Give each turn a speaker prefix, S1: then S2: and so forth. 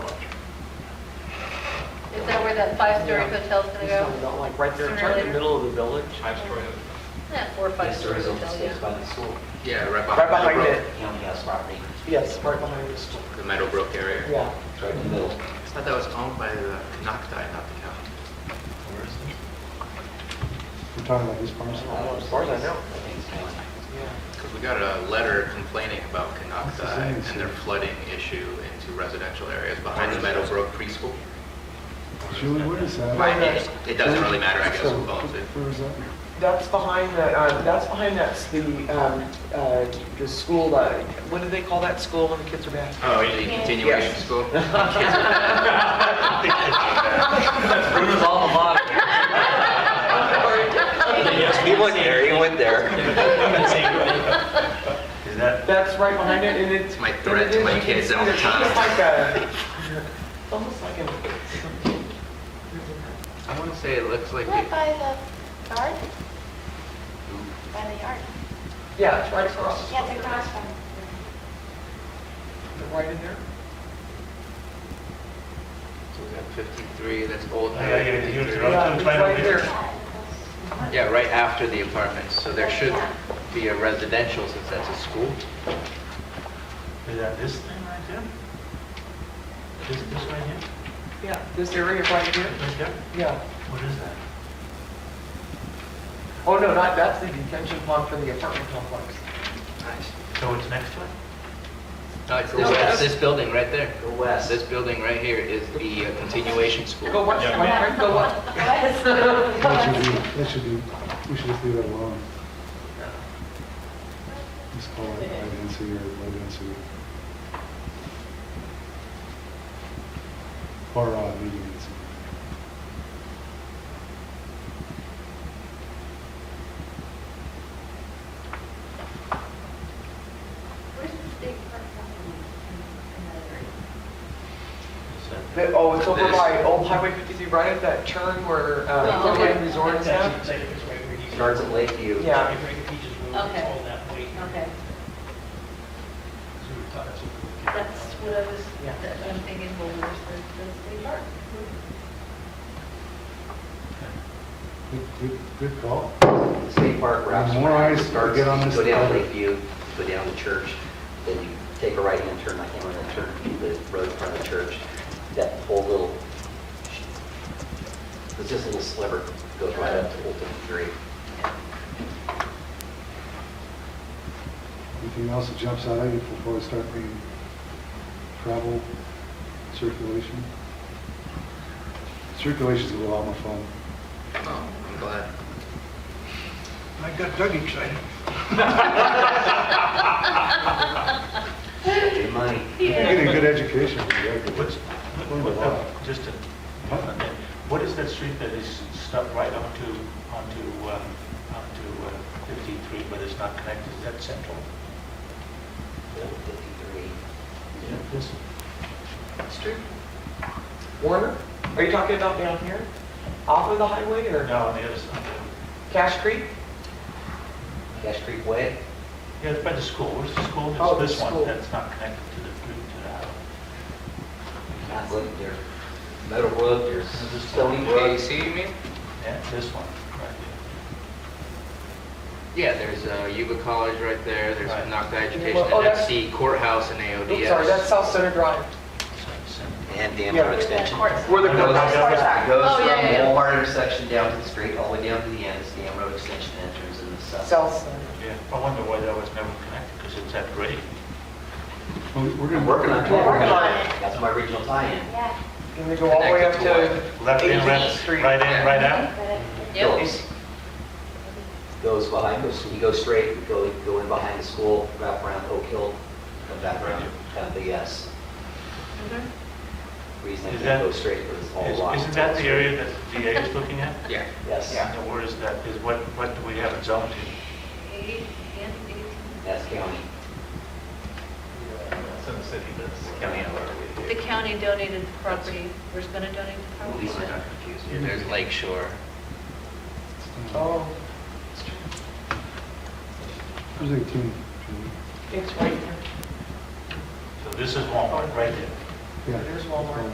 S1: Is that where that five-story hotel's gonna
S2: It's not
S1: go?
S2: about like right there,
S1: Sooner or
S2: it's right in
S1: later.
S2: the middle of the village.
S3: Five-story hotel.
S1: Yeah, four or
S4: Yes, there
S1: five-story
S4: is open
S1: hotel,
S4: space
S1: yeah.
S4: by the school.
S3: Yeah,
S2: Right
S3: right behind
S2: behind
S3: Meadowbrook.
S2: it.
S4: County has property,
S2: Yes, right behind the school.
S3: The Meadowbrook area.
S2: Yeah.
S4: it's right in the middle.
S3: I thought that was owned by the Nocti, not the county.
S5: We're talking about these farms.
S2: As far as I know.
S4: I think it's county.
S2: Yeah.
S3: Because we got a letter complaining about Canocti
S5: It's the same
S3: and their
S5: issue.
S3: flooding issue into residential areas behind the Meadowbrook preschool.
S5: Julie, what is that?
S3: Right, it- It doesn't really matter, I guess, who owns it.
S5: Where is that?
S2: That's behind the, um, that's behind that's the, um, uh, the school, uh, what do they call that school when the kids are back?
S3: Oh, you mean continuation
S2: Yes.
S3: school?
S4: Bruno's alma mater. Yes, he went there, he went there.
S5: Is that?
S2: That's right behind it, and it's.
S3: It's my threat to my kids all the time.
S2: It's like a, it's almost like a.
S3: I want to say it looks like,
S6: Right
S3: it-
S6: by the yard? By the yard.
S2: Yeah, it's right across,
S6: Yeah, it's across from.
S2: right in there.
S3: so we got 53, that's old.
S5: Yeah, yeah, yeah, here's the
S2: Yeah,
S5: road.
S3: area.
S2: it's right there.
S3: Yeah, right after the apartments, so there should be a residential since that's a school.
S5: Is that this thing right there? This, this right here?
S2: Yeah, this area right here,
S5: Right there?
S2: yeah.
S5: What is that?
S2: Oh, no, not, that's the detention pond for the apartment complex.
S3: Nice.
S5: So it's next to it?
S3: No, it's
S2: No,
S3: this,
S2: that's-
S3: it's this building right there.
S4: Go west.
S3: This building right here is the uh, continuation
S2: Go
S3: school.
S2: what, my friend, go what?
S5: That should be, that should be, we should just leave it alone. Just call it high density or low density. Or uh, medium density.
S1: Where's the state park company?
S2: The- Oh, it's over
S3: This.
S2: by Old Highway 53, right at that turn where, uh,
S1: Oh, okay.
S2: Hilton Resorts at.
S4: Starts at Lakeview.
S2: Yeah.
S1: Okay. Okay, that's what I was,
S2: Yeah.
S1: that- I'm thinking, well, where's the, the state park?
S5: Good, good, good call.
S4: The State park wraps.
S5: The more
S4: around,
S5: eyes
S4: it starts-
S5: get on this
S4: Go down
S5: topic.
S4: Lakeview, go down the church, then you take a right-hand turn, I can't remember the turn, the road in front of the church. That whole little, it's just a little sliver, goes right up to Old 53.
S5: Anything else that jumps out at you before we start being travel, circulation? Circulation's a lot more fun.
S3: Oh, I'm glad.
S5: I got Doug excited.
S4: Good money.
S5: You're getting a good education.
S7: What's,
S5: Learned a
S7: what-
S5: lot.
S7: what- just to, what is that street that is stuck right onto, onto, uh, onto uh, 53, but it's not connected, is that central?
S4: Old 53.
S7: This-
S2: Street? Warner? Are you talking about down here? Off of the highway or
S7: No, on the other side.
S2: Cash Creek?
S4: Cash Creek Way,
S7: Yeah, it's by the school, where's the school?
S2: Oh,
S7: It's
S2: the
S7: this
S2: school.
S7: one that's not connected to the, to the highway.
S4: not Lake, there's Meadow Brook, there's
S7: This is
S4: Stony Brook.
S3: KC, you mean?
S7: Yeah, this one, right there.
S3: Yeah, there's uh, Yuba College right there, there's
S7: Right.
S3: Nocta Education,
S2: Well, oh,
S3: and that's
S2: that's-
S3: the courthouse and
S2: Oops, sorry, that's
S3: AODS.
S2: South Center Drive.
S7: It's like center.
S4: And Danforth Extension.
S2: Where the
S4: It goes-
S2: courthouse
S4: it
S2: cars are.
S4: Goes
S1: Oh,
S4: from
S1: yeah, yeah,
S4: the
S1: yeah.
S4: Walmart intersection down to the street, all the way down to the end, it's the Amroad Extension entrance in the south.
S2: South Center.
S7: Yeah, I wonder why that was never connected, because it's that grade.
S5: We're
S4: We're
S5: gonna work
S4: working
S5: on
S4: on
S5: it.
S4: that.
S2: working on it.
S4: That's my regional tie-in.
S6: Yeah.
S2: Can we go all the way up to
S7: Left in,
S2: 18th
S7: left,
S2: Street?
S7: right in, right out?
S6: But it-
S4: Phillips goes behind, us. you go straight, you go, go in behind the school, wrap around Oak Hill, come back around, have the yes. Reason I
S7: Is
S4: can't
S7: that-
S4: go straight because it's all
S7: Is-
S4: locked.
S7: Isn't that the area that the DA is looking at?
S3: Yeah,
S4: Yes,
S2: Yeah.
S7: And where is that, is what, what do we have it zoned to?
S1: Eight, and eighteen.
S4: that's county.
S1: The county donated the property, we're just gonna donate the property.
S4: Lisa got
S3: Yeah,
S4: confused.
S3: there's Lake Shore.
S2: Oh,
S5: There's 18. Julie.
S2: it's right there.
S7: So this is Walmart, right there.
S5: Yeah.
S2: There's Walmart.